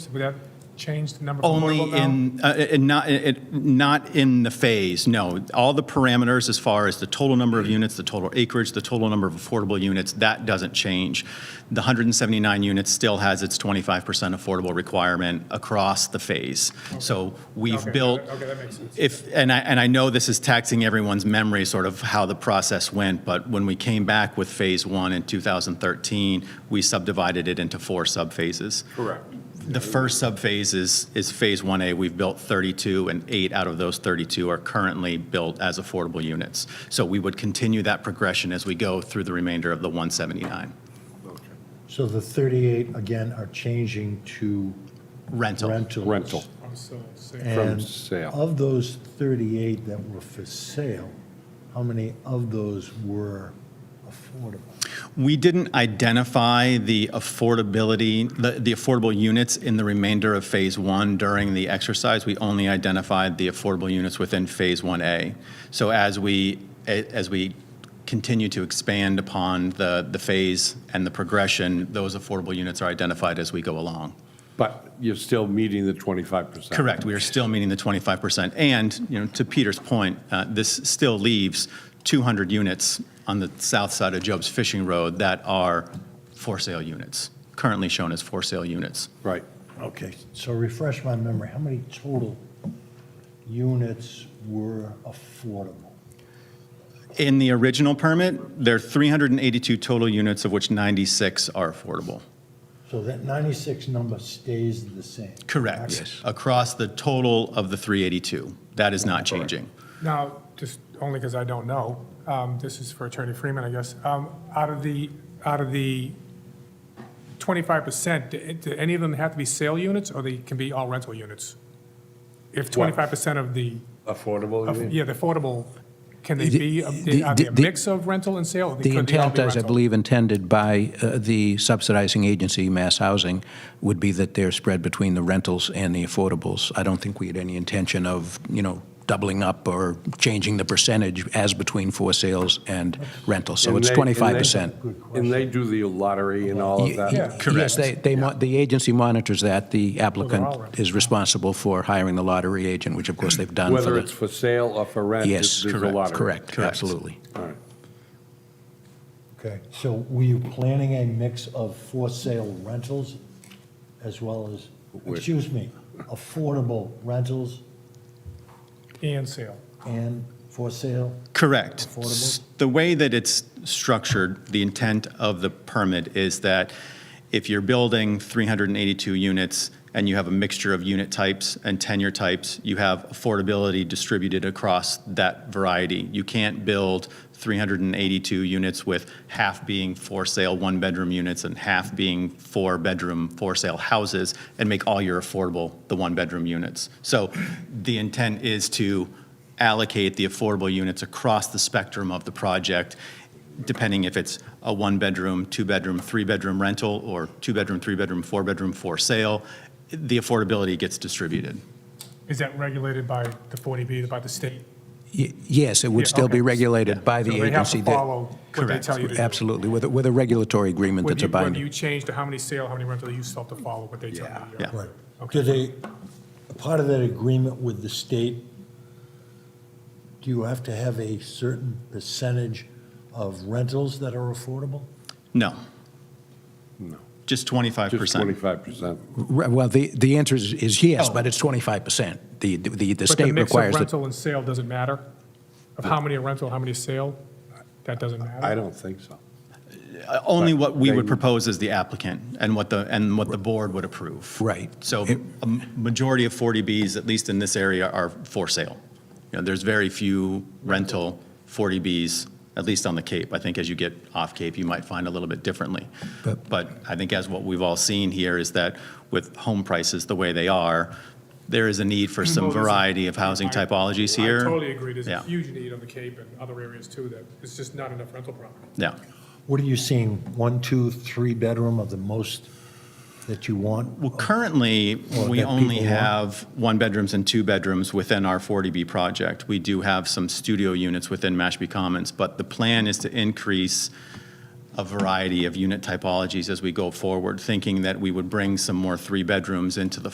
So Would that change the number? from Only affordable now? in, uh, in not, it, not in the phase, no. All the parameters as far as the total number of units, the total acreage, the total number of affordable units, that doesn't change. The 179 units still has its 25% affordable requirement across the phase. So we've Okay, built, okay, that makes sense. if, and I, and I know this is taxing everyone's memory, sort of how the process went, but when we came back with Phase 1 in 2013, we subdivided it into four subphases. Correct. The first subphase is, is Phase 1A. We've built 32, and eight out of those 32 are currently built as affordable units. So we would continue that progression as we go through the remainder of the 179 So the 38, again, are changing to rental. rentals. Rental. Oh, So, so- And sale. of those 38 that were for sale, how many of those were affordable? We didn't identify the affordability, the the affordable units in the remainder of Phase 1 during the exercise. We only identified the affordable units within Phase 1A. So as we, as we continue to expand upon the, the phase and the progression, those affordable units are identified as we go along. But you're still meeting the 25%. Correct, we are still meeting the 25%. And, you know, to Peter's point, uh, this still leaves 200 units on the south side of Job's Fishing Road that are for sale units, currently shown as for sale units. Right. Okay, so refresh my memory, how many total units were affordable? In the original permit, there are 382 total units, of which 96 are affordable. So that 96 number stays the same? Correct. Across the total of the 382. That is not changing. Now, just only because I don't know, um, this is for Attorney Freeman, I guess. Um, Out of the, out of the 25%, do do any of them have to be sale units or they can be all rental units? If 25% of the, Affordable, of- you mean? yeah, the affordable, can they The- be, are they the- a the- mix of rental and sale? or could they The all intent, be as I rental? believe intended by uh, the subsidizing agency, Mass Housing, would be that they're spread between the rentals and the affordables. I don't think we had any intention of, you know, doubling up or changing the percentage as between for sales and rental. So And it's they- and they- 25%. And they do the lottery and all of Ye- that? Yes, they, they, mo- the agency monitors that. The all applicant rental. is responsible for hiring the lottery agent, which of course they've done for Whether it's the. for sale or for rent? Yes, there's a correct, lottery. correct, absolutely. All right. Okay, so were you planning a mix of for-sale rentals as well as, excuse me, affordable rentals And sale. and for-sale? Correct. Affordable? S- The way that it's structured, the intent of the permit is that if you're building 382 units and you have a mixture of unit types and tenure types, you have affordability distributed across that variety. You can't build 382 units with half being for sale one-bedroom units and half being four-bedroom for-sale houses and make all your affordable the one-bedroom units. So the intent is to allocate the affordable units across the spectrum of the project, depending if it's a one-bedroom, two-bedroom, three-bedroom rental, or two-bedroom, three-bedroom, four-bedroom for sale, the affordability gets distributed. Is that regulated by the 40B, by the state? Ye- Yes, it would Yeah, still be okay. regulated by the So they have agency. to that- follow what they Correct, tell you to do. Absolutely, with a, with a regulatory agreement When that's you, a when you binding. change to how many sale, how many rental, you still have to follow what they tell you. Yeah. Right. Do they, a part of that agreement with the state, do you have to have a certain percentage of rentals that are affordable? No. Just 25%. Just 25%. Re- Well, the, the answer is, is yes, Oh. but it's 25%. The, the, the But the state mix of requires that. rental and sale doesn't matter? Of how many are rental, how many are sale? That doesn't I matter? don't think so. Only what we would They- propose as the applicant and what the, and what the board would approve. Right. So It- a majority of 40Bs, at least in this area, are for sale. You know, there's very few rental 40Bs, at least on the Cape. I think as you get off Cape, you might find a little bit differently. But- But I think as what we've all seen here is that with home prices the way they are, there is a need for some Well, there's a- variety of housing typologies here. I totally agree. There's a Yeah. huge need on the Cape and other areas too, that it's just not enough rental property. Yeah. What are you seeing, one, two, three bedroom of the most that you want? Well, currently, Or we that only people want. have one-bedrooms and two-bedrooms within our 40B project. We do have some studio units within Mashpee Commons, but the plan is to increase a variety of unit typologies as we go forward, thinking that we would bring some more three-bedrooms into the